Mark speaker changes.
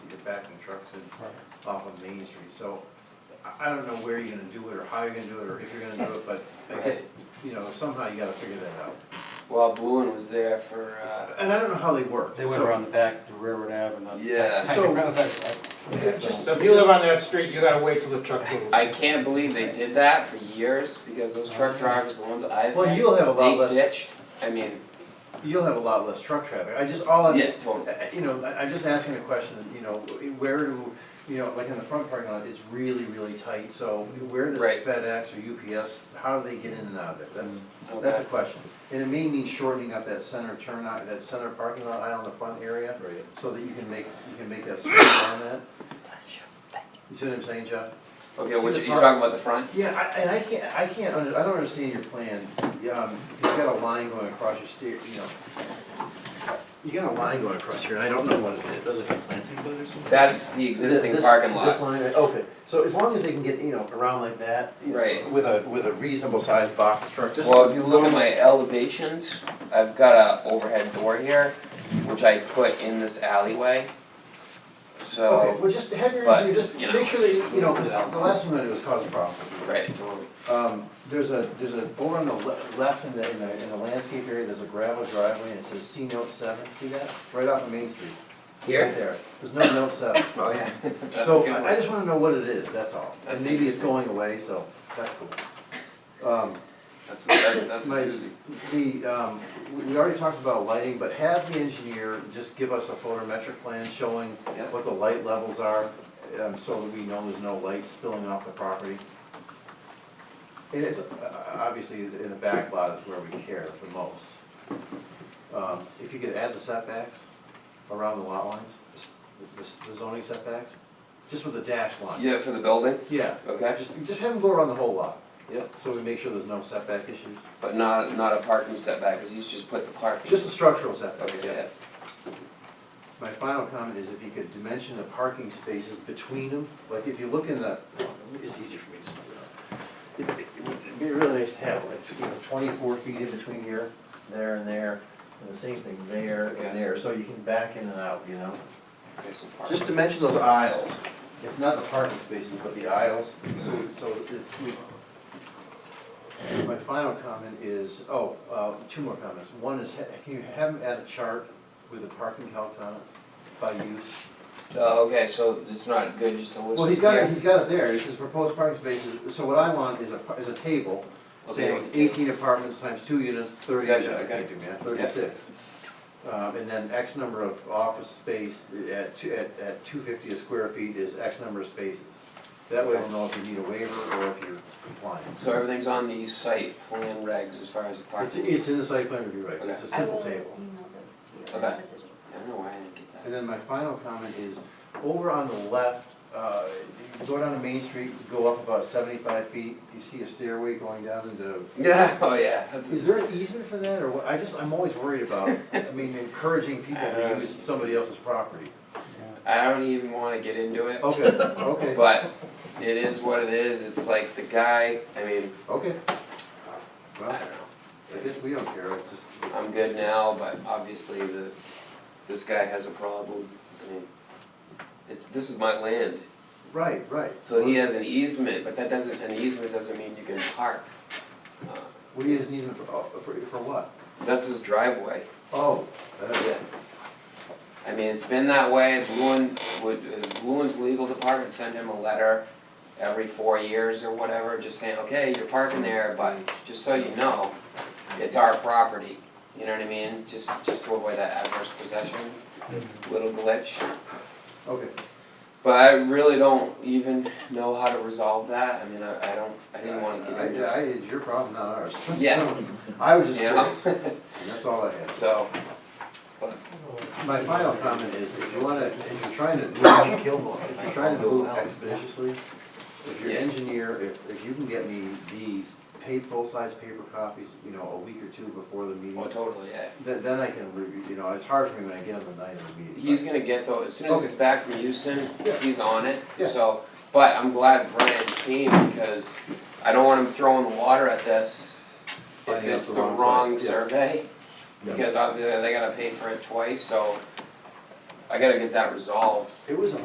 Speaker 1: impacting trucks in, off of Main Street, so I, I don't know where you're gonna do it, or how you're gonna do it, or if you're gonna do it, but I guess, you know, somehow you gotta figure that out.
Speaker 2: Well, Balloon was there for, uh,
Speaker 1: And I don't know how they work.
Speaker 3: They went
Speaker 1: so-
Speaker 3: around the back to Railroad Avenue. not the
Speaker 2: Yeah.
Speaker 3: back.
Speaker 1: So-
Speaker 3: Railroad Ave.
Speaker 1: Yeah, just-
Speaker 4: So if you live on that street, you gotta wait till the truck moves.
Speaker 2: I can't believe they did that for years, because those truck drivers, the ones I've
Speaker 1: Uh-huh. Well,
Speaker 2: had,
Speaker 1: you'll have a lot
Speaker 2: they
Speaker 1: less,
Speaker 2: ditched, I mean,
Speaker 1: you'll have a lot less truck traffic, I just, all I'm,
Speaker 2: yeah, totally.
Speaker 1: Uh, You know, I- I'm just asking a question, you know, where do, you know, like in the front parking lot, it's really, really tight, so where does
Speaker 2: Right.
Speaker 1: FedEx or UPS, how do they get in and out of it? That's, that's a
Speaker 2: Okay.
Speaker 1: question. And it may mean shortening up that center turn, out- that center parking lot aisle in the front area,
Speaker 4: Right.
Speaker 1: so that you can make, you can make that space around that. You see what I'm saying, Jeff?
Speaker 2: Okay, what, you
Speaker 1: See the
Speaker 2: you
Speaker 1: park-
Speaker 2: talking about the front?
Speaker 1: Yeah, I- and I can't, I can't, under- I don't understand your plan, um, you've got a line going across your stair, you know. You got a line going across here, and I don't know what it is, does it have planting bud or something?
Speaker 2: That's the existing
Speaker 1: This-
Speaker 2: parking
Speaker 1: This
Speaker 2: lot,
Speaker 1: line, right, okay, so as long as they can get, you know, around like that. you know,
Speaker 2: Right.
Speaker 1: With a, with a reasonable sized box truck, just.
Speaker 2: well, if you look at my elevations, I've got a overhead door here, which I put in this alleyway.
Speaker 1: Okay,
Speaker 2: So,
Speaker 1: well, just have your
Speaker 2: but,
Speaker 1: engineer, just
Speaker 2: you know.
Speaker 1: make sure that, you- you know, 'cause the last thing I'm gonna do is cause a problem.
Speaker 2: right, totally,
Speaker 1: Um, there's a, there's a, over on the le- left in the, in the, in the landscape area, there's a gravel driveway and it says C note seven, see that? Right off of Main Street. Right
Speaker 2: here,
Speaker 1: there, there's no note seven.
Speaker 2: oh yeah, that's a
Speaker 1: So
Speaker 2: good one.
Speaker 1: I I just wanna know what it is, that's all. And
Speaker 2: That's
Speaker 1: maybe it's
Speaker 2: interesting.
Speaker 1: going away, so that's cool. Um,
Speaker 2: That's, that- that's
Speaker 1: my,
Speaker 2: amazing.
Speaker 1: the, um, we- we already talked about lighting, but have the engineer just give us a photometric plan showing
Speaker 2: Yeah.
Speaker 1: what the light levels are, um, so that we know there's no light spilling off the property. It is, uh, obviously, in the back lot is where we care the most. Um, if you could add the setbacks around the lot lines, the the zoning setbacks, just with a dash line.
Speaker 2: Yeah, for the building,
Speaker 1: Yeah,
Speaker 2: okay,
Speaker 1: just, just have them go around the whole lot,
Speaker 2: yeah,
Speaker 1: so we make sure there's no setback issues.
Speaker 2: but not, not a parking setback, cause he's just put the parking.
Speaker 1: Just a structural setback,
Speaker 2: Okay,
Speaker 1: yeah.
Speaker 2: yeah,
Speaker 1: My final comment is if you could dimension the parking spaces between them, like if you look in the, it's easier for me to stop it up. It- it would- It'd be really nice to have like, you know, twenty-four feet in between here, there and there, and the same thing there and there, so you can back in and out, you know?
Speaker 2: there's some parking.
Speaker 1: Just dimension those aisles, it's not the parking spaces, but the aisles, so, so it's. we- My final comment is, oh, uh, two more comments, one is, ha- can you have them add a chart with the parking count on it by use?
Speaker 2: Oh, okay, so it's not good just to list it here?
Speaker 1: Well, he's got it, he's got it there, it says proposed parking spaces, so what I want is a, par- is a table
Speaker 2: Okay.
Speaker 1: saying eighteen apartments times two units, thirty, I
Speaker 2: Gotcha, okay.
Speaker 1: can't do math, thirty-six. Um, and then X number of office space at two, at, at two fifty a square feet is X number of spaces. That way we'll know if you need a waiver or if you're compliant.
Speaker 2: So everything's on the site plan regs as far as the
Speaker 1: It's,
Speaker 2: parking?
Speaker 1: it's in the site plan review, right, it's a
Speaker 5: I
Speaker 1: simple
Speaker 5: will
Speaker 1: table.
Speaker 5: email those to you.
Speaker 2: Okay.
Speaker 5: I have a digital
Speaker 2: I don't know why I didn't get that.
Speaker 1: And then my final comment is, over on the left, uh, you go down to Main Street, you go up about seventy-five feet, you see a stairway going down into
Speaker 2: Yeah, oh yeah, that's,
Speaker 1: Is there an easement for that, or what, I just, I'm always worried about, I mean, encouraging people
Speaker 2: Uh,
Speaker 1: to use somebody else's property.
Speaker 2: I don't even wanna get into it,
Speaker 1: Okay, okay,
Speaker 2: but it is what it is, it's like the guy, I mean,
Speaker 1: okay.
Speaker 2: I
Speaker 1: Well,
Speaker 2: don't
Speaker 1: I
Speaker 2: know.
Speaker 1: guess we don't care, it's just,
Speaker 2: I'm good now, but obviously the, this guy has a problem, I mean, it's, this is my land,
Speaker 1: right, right.
Speaker 2: so he has an easement, but that doesn't, an easement doesn't mean you can park. Uh,
Speaker 1: What do you guys need him for, oh, for, for what?
Speaker 2: That's his driveway.
Speaker 1: Oh, uh,
Speaker 2: Yeah. I mean, it's been that way, Bluen, would, uh, Bluen's legal department send him a letter every four years or whatever, just saying, okay, you're parking there, but just so you know, it's our property, you know what I mean? Just, just to avoid that adverse possession, little glitch.
Speaker 1: okay,
Speaker 2: But I really don't even know how to resolve that, I mean, I, I don't, I didn't wanna get
Speaker 1: I,
Speaker 2: into it,
Speaker 1: I, it's your problem, not ours.
Speaker 2: Yeah.
Speaker 1: I was just
Speaker 2: you know?
Speaker 1: curious, and that's all I had.
Speaker 2: So,
Speaker 1: My final comment is, if you wanna, if you're trying to move, if you're trying to move expeditiously, if your
Speaker 2: Yeah.
Speaker 1: engineer, if, if you can get me these paid full-size paper copies, you know, a week or two before the meeting,
Speaker 2: well, oh, totally, yeah.
Speaker 1: then, then I can review, you know, it's hard for me when I get on the night of the meeting.
Speaker 2: He's gonna get though, as soon as he's
Speaker 1: Okay.
Speaker 2: back from Houston,
Speaker 1: Yeah.
Speaker 2: he's on it,
Speaker 1: Yeah.
Speaker 2: so, but I'm glad Brian came because I don't want him throwing the water at this. If
Speaker 1: Finding out
Speaker 2: it's
Speaker 1: the
Speaker 2: the
Speaker 1: wrong
Speaker 2: wrong
Speaker 1: size, yeah.
Speaker 2: survey,
Speaker 1: Yeah.
Speaker 2: because obviously they gotta pay for it twice, so I gotta get that resolved.
Speaker 1: It was a